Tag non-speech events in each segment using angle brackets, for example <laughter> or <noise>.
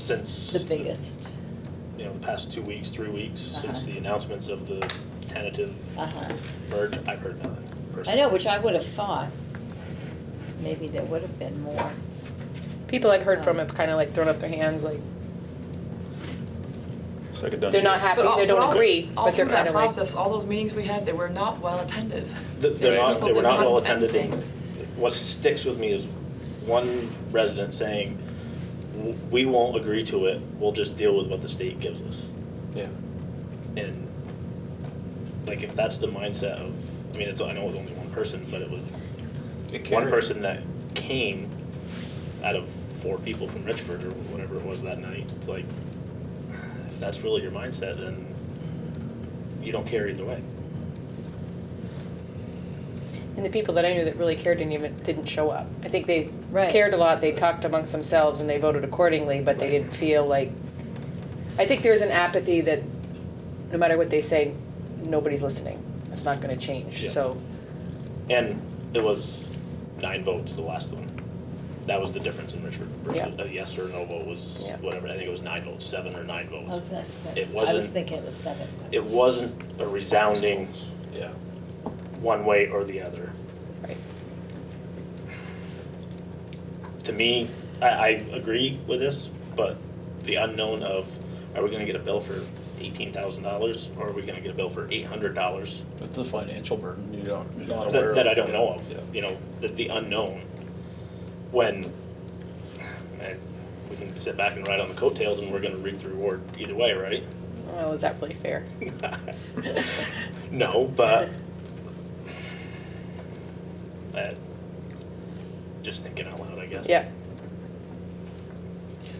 since, the biggest. you know, the past two weeks, three weeks, since Uh-huh. the announcements of the tentative Uh-huh. merge, I've heard nothing I personally. know, which I would have thought. Maybe there would have been more. People I've heard from have kind of like thrown up their hands, like, It's like a done they're not deal. happy, all- they don't all- agree, All but through they're kind that of like. process, all those meetings we had, they were not well attended. Th- They're People not, they did were not well attend attended. and things. What sticks with me is one resident saying, "W- we won't agree to it, we'll just deal with what the state gives us. Yeah. And like, if that's the mindset of, I mean, it's, I know it was only one person, but it was It one carried. person that came out of four people from Richford or whatever it was that night. It's like, if that's really your mindset, then you don't care either way. And the people that I knew that really cared didn't even, didn't show up. I think they Right. cared a lot, they talked amongst themselves and they voted accordingly, but they didn't feel like, I think there's an apathy that no matter what they say, nobody's listening. It's not gonna change, Yeah. so, And it was nine votes, the last one. That was the difference in Richford versus a yes or no vote was Yeah. whatever. I think it was nine votes, seven or nine I votes. was gonna say- It I was wasn't- thinking it was seven. but- It wasn't a resounding Yeah. one way or the other. right. to me, I, I agree with this, but the unknown of are we going to get a bill for eighteen thousand dollars or are we going to get a bill for eight hundred dollars It's a financial burden you don't, you're not aware that, of. that I don't know of? Yeah. You know, the, the unknown. When man, we can sit back and ride on the coattails and we're going to reap the reward either way, right? Well, is that really fair? No, but I, just thinking out loud, I guess. Yeah,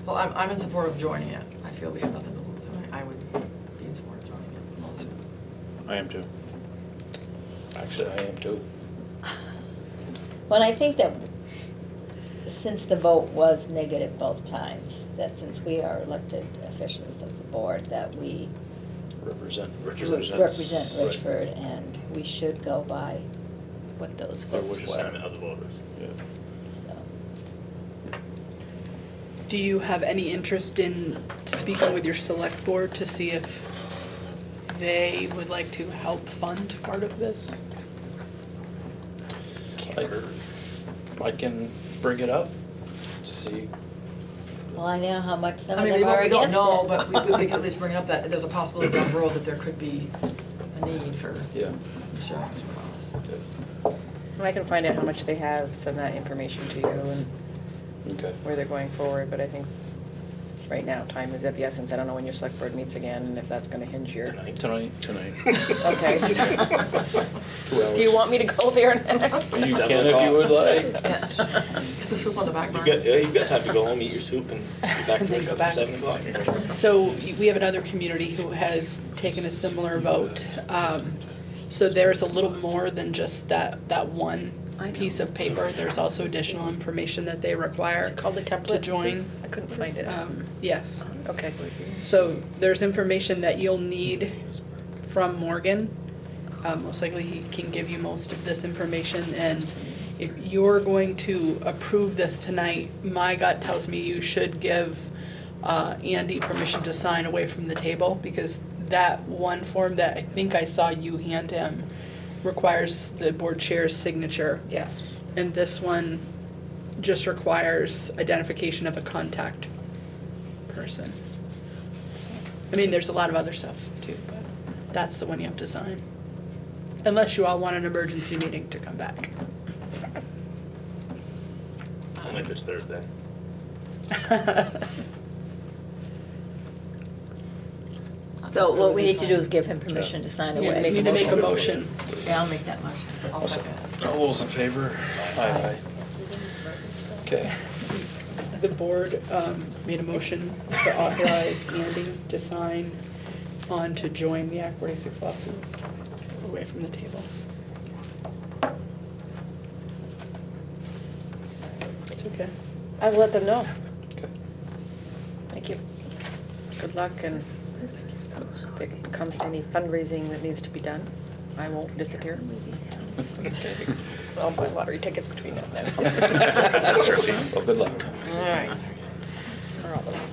Well, I'm, I'm in support of joining it. I feel we have nothing to lose. and I I would be in support of joining it also. I am too. Actually, I am too. Well, I think that since the vote was negative both times, that since we are elected officials of the board, that we Represent. Represent. represent Right. Richford and we should go by what those By It's votes which the way. were, sentiment of the voters. Yeah. so. Do you have any interest in speaking with your select board to see if they would like to help fund part of this? Can't Like- hurt. I can bring it up to see. Well, I know how much some I of mean, we them are don't, we against it. don't know, but we, <laughs> we can at least bring it up that there's a possibility down the road that there could be a need for Yeah. insurance for us. yeah. and I can find out how much they have, send that information to you and Okay. where they're going forward, but I think right now, time is of the essence. I don't know when your select board meets again and if that's gonna hinge your, Tonight. Tonight. Tonight. <laughs> okay, so- Two hours. do you want me to go there next? <laughs> You Sounds can like if a- you would like. Get the soup on the back You've burner. got, yeah, you've got time to go home, eat your soup, and be back to And then go Richmond at back. seven o'clock. So y- we have another community who has taken a similar vote. Um, So there's a little more than just that, that one piece of paper. There's also additional information that they require. Is it called the template? join. I couldn't find it. Um, Yes. Okay. So there's <laughs> information that you'll need from Morgan. Um, most likely he can give you most of this information and if you're going to approve this tonight, my gut tells me you should give uh, Andy permission to sign away from the table because that one form that I think I saw you hand him requires the board chair's signature. Yes. And this one just requires identification of a contact person. So, I mean, there's a lot of other stuff too, but that's the one you have to sign. Unless you all want an emergency meeting to come back. <laughs> Only if it's Thursday. So what we need to do is give him permission to sign Yeah, away. you need to make a motion. Yeah, I'll make that motion. I'll second. All those in favor? Aye. <laughs> Okay. The board um, made a motion to authorize Andy to sign on to join the Act 46 lawsuit away from the table. It's okay. I've let them know. Okay. Thank you. Good luck and if it comes to any fundraising that needs to be done, I won't disappear. <laughs> I'll buy lottery tickets between now and then. <laughs> Well, good luck. All right.